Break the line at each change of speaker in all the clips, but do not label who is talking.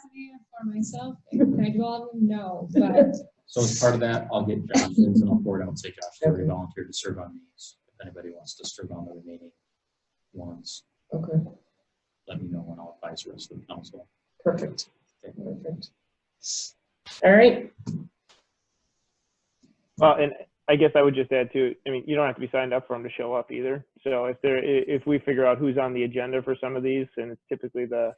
for myself? Can I do all of them? No, but
So as part of that, I'll get Jonathan's and I'll forward out, say Josh, already volunteered to serve on these. If anybody wants to serve on the remaining ones,
Okay,
let me know and I'll advise the rest of the council.
perfect. Perfect. All right,
Well, and I guess I would just add to, I mean, you don't have to be signed up for them to show up either. So if there, i- if we figure out who's on the agenda for some of these, and it's typically the,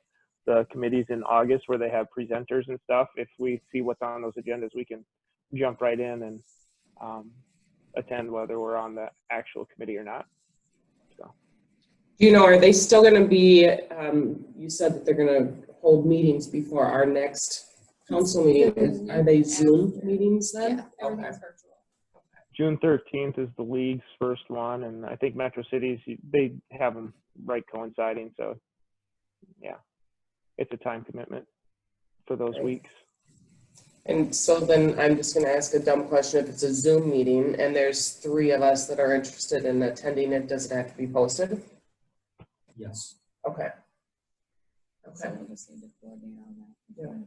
the committees in August where they have presenters and stuff, if we see what's on those agendas, we can jump right in and, um, attend whether we're on the actual committee or not.
you know, are they still gonna be, um, you said that they're gonna hold meetings before our next council meeting. Are they Zoom meetings
yeah,
then? Okay.
everything's virtual.
June thirteenth is the league's first one, and I think Metro Cities, they have them right coinciding, so, yeah. It's a time commitment for those
Great.
weeks.
And so then I'm just gonna ask a dumb question. If it's a Zoom meeting and there's three of us that are interested in attending it, does it have to be posted?
Yes.
Okay.
So
Okay,
we'll just need to coordinate all that.
Yeah.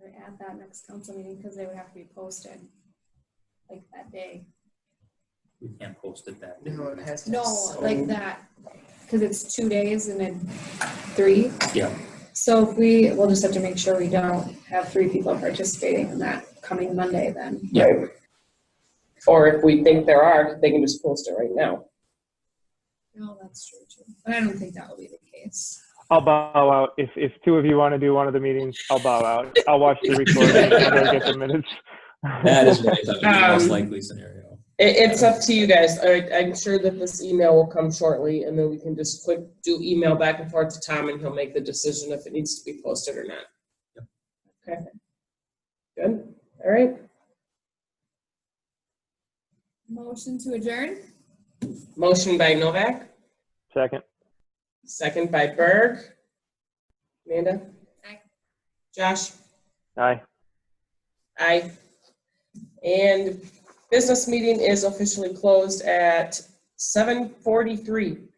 Or at that next council meeting, because they would have to be posted, like that day.
We can't post it that. day.
no, it has to. be
No,
so-
like that, because it's two days and then three.
Yeah.
So if we, we'll just have to make sure we don't have three people participating in that coming Monday then.
Right. Or if we think there are, they can just post it right now.
No, that's true too. But I don't think that will be the case.
I'll bow out. If if two of you want to do one of the meetings, I'll bow out. I'll watch the recording and go get the minutes.
That is what I thought was the most
Um,
likely scenario.
It, it's up to you guys. I, I'm sure that this email will come shortly and then we can just quick do email back and forth to Tom and he'll make the decision if it needs to be posted or not. Okay. Good, all right.
Motion to adjourn?
Motion by Novak,
Second.
second by Berg. Amanda?
Aye.
Josh?
Aye.
Aye. And business meeting is officially closed at seven forty-three.